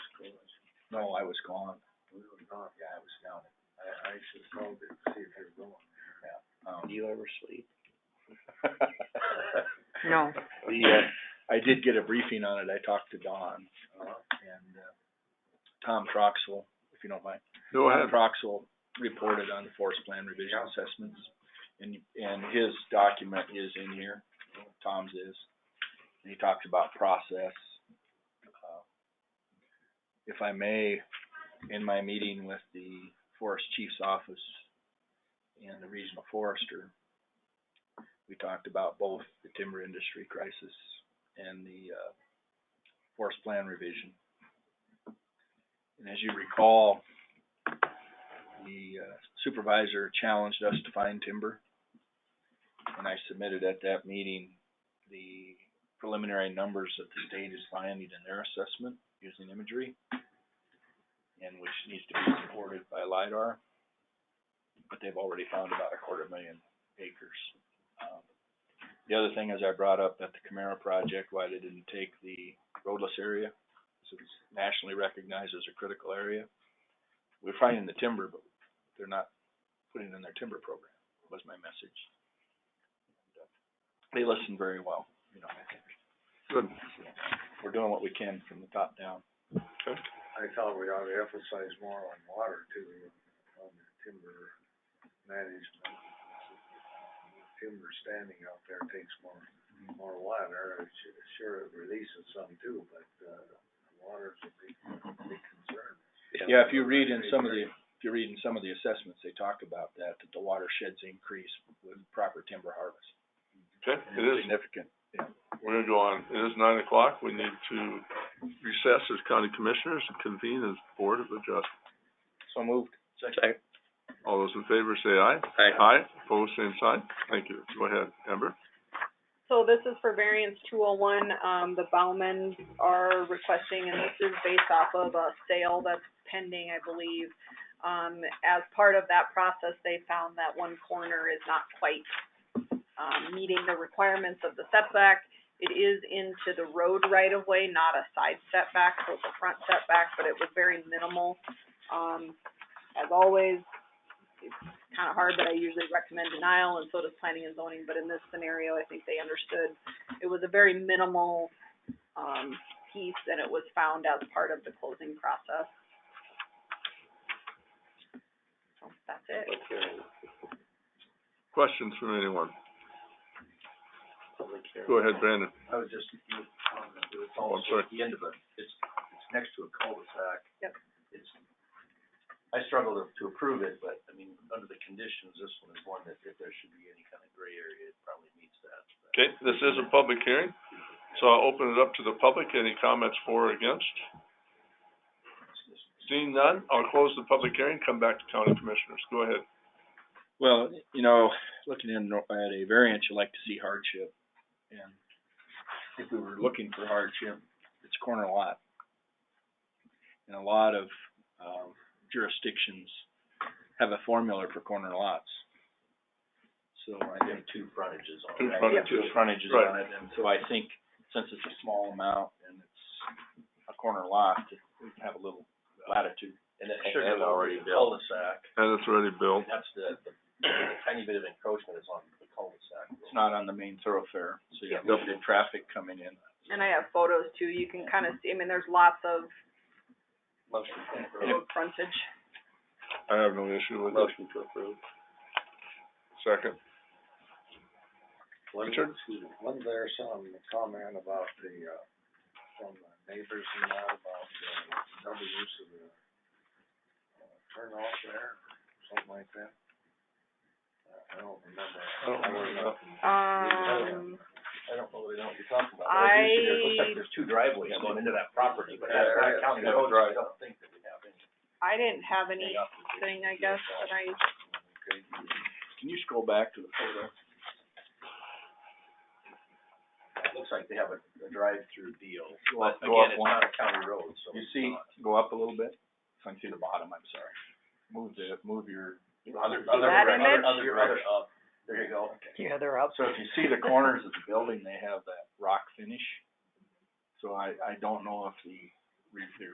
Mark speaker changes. Speaker 1: No, I was gone. You were gone? Yeah, I was down. I, I should have called it to see if you were going. Yeah. Um,
Speaker 2: Do you ever sleep?
Speaker 3: No.
Speaker 1: the, uh, I did get a briefing on it. I talked to Don, uh, and, uh, Tom Troxel, if you don't mind.
Speaker 4: Go
Speaker 1: Tom Troxel reported on the forest plan revision assessments, and, and his document is in here, Tom's is. And he talks about process. Uh, If I may, in my meeting with the forest chief's office and the regional forester, we talked about both the timber industry crisis and the, uh, forest plan revision. And as you recall, the uh, supervisor challenged us to find timber. And I submitted at that meeting the preliminary numbers that the state is finding in their assessment using imagery. And which needs to be supported by LiDAR. But they've already found about a quarter million acres. Um, The other thing is I brought up at the Camara project, why they didn't take the roadless area. This is nationally recognized as a critical area. We're finding the timber, but they're not putting it in their timber program, was my message. uh, They listen very well, you know, I think.
Speaker 4: Good.
Speaker 1: We're doing what we can from the top down.
Speaker 5: I thought we ought to emphasize more on water too, on the timber management. Timber standing out there takes more, more water, Su- sure it releases some too, but, uh, water's a big, big concern.
Speaker 1: Yeah, if you read in some of the, if you read in some of the assessments, they talk about that, that the watersheds increase with proper timber harvest.
Speaker 4: Okay, it is,
Speaker 1: Significant.
Speaker 4: we're gonna go on, it is nine o'clock, we need to recess as county commissioners and convene as board of adjustment.
Speaker 1: So moved.
Speaker 2: Second.
Speaker 4: All those in favor say aye.
Speaker 2: Aye.
Speaker 4: Aye, opposed, same sign, thank you, go ahead, Amber.
Speaker 3: So this is for variance two oh one, um, the Bauman are requesting, and this is based off of a sale that's pending, I believe. Um, as part of that process, they found that one corner is not quite, um, meeting the requirements of the setback. It is into the road right of way, not a side setback, so it's a front setback, but it was very minimal. Um, as always, kind of hard, but I usually recommend denial, and so does planning and zoning, but in this scenario, I think they understood. It was a very minimal, um, piece, and it was found as part of the closing process. So That's it.
Speaker 2: Public hearing,
Speaker 4: Questions from anyone?
Speaker 2: public hearing.
Speaker 4: Go ahead, Brandon.
Speaker 5: I was just, um, it was
Speaker 4: Oh, I'm sorry.
Speaker 5: at the end of it, it's, it's next to a cul-de-sac.
Speaker 3: Yep.
Speaker 5: It's, I struggle to, to approve it, but, I mean, under the conditions, this one is one that if there should be any kind of gray area, it probably meets that.
Speaker 4: Okay, this is a public hearing, so I'll open it up to the public, any comments for or against? Seeing none, I'll close the public hearing, come back to county commissioners, go ahead.
Speaker 1: Well, you know, looking in at a variance, you like to see hardship. And if we were looking for hardship, it's a corner lot. And a lot of, um, jurisdictions have a formula for corner lots. So I think. Two frontages
Speaker 4: Two it. frontages.
Speaker 1: Two frontages
Speaker 4: Right.
Speaker 1: on it, and so I think since it's a small amount and it's a corner lot, we can have a little latitude.
Speaker 5: And it,
Speaker 1: Sure,
Speaker 5: and it
Speaker 1: they'll
Speaker 5: already
Speaker 1: be built.
Speaker 5: cul-de-sac,
Speaker 4: And it's already Bill.
Speaker 5: and that's the, the the tiny bit of encroachment is on the cul-de-sac.
Speaker 1: It's not on the main thoroughfare, so you have
Speaker 4: Yeah.
Speaker 1: limited traffic coming in.
Speaker 3: And I have photos too, you can kind of see, I mean, there's lots of road frontage.
Speaker 4: I have no issue with it.
Speaker 2: Motion to approve.
Speaker 4: Second.
Speaker 5: Wasn't-
Speaker 4: Richard?
Speaker 5: excuse me, Wasn't there some comment about the, uh, from the neighbors and that about, uh, double use of the, uh, turn off there, something like that? I- I don't remember.
Speaker 4: I don't remember.
Speaker 3: Um,
Speaker 5: I don't know, they don't, you're talking about.
Speaker 3: I,
Speaker 5: There's two driveways going into that property, but
Speaker 4: Yeah,
Speaker 5: that's
Speaker 4: there
Speaker 5: not
Speaker 4: is.
Speaker 5: county
Speaker 4: Yeah,
Speaker 5: roads,
Speaker 4: right.
Speaker 5: I don't think that we have any.
Speaker 3: I didn't have anything, I guess, that I
Speaker 1: Can you scroll back to the photo?
Speaker 5: It looks like they have a, a drive-through deal,
Speaker 1: Go
Speaker 5: but
Speaker 1: up- go
Speaker 5: again,
Speaker 1: up
Speaker 5: it's
Speaker 1: one.
Speaker 5: not a county road, so.
Speaker 1: You
Speaker 5: it's
Speaker 1: see,
Speaker 5: not.
Speaker 1: go up a little bit, if I can see the bottom, I'm sorry. Move the, move your.
Speaker 5: Other,
Speaker 1: See
Speaker 5: other,
Speaker 3: that
Speaker 5: direct-
Speaker 3: image?
Speaker 5: other, other, other up, there you go.
Speaker 3: Yeah, they're up.
Speaker 1: So if you see the corners of the building, they have that rock finish. So I, I don't know if the, re- the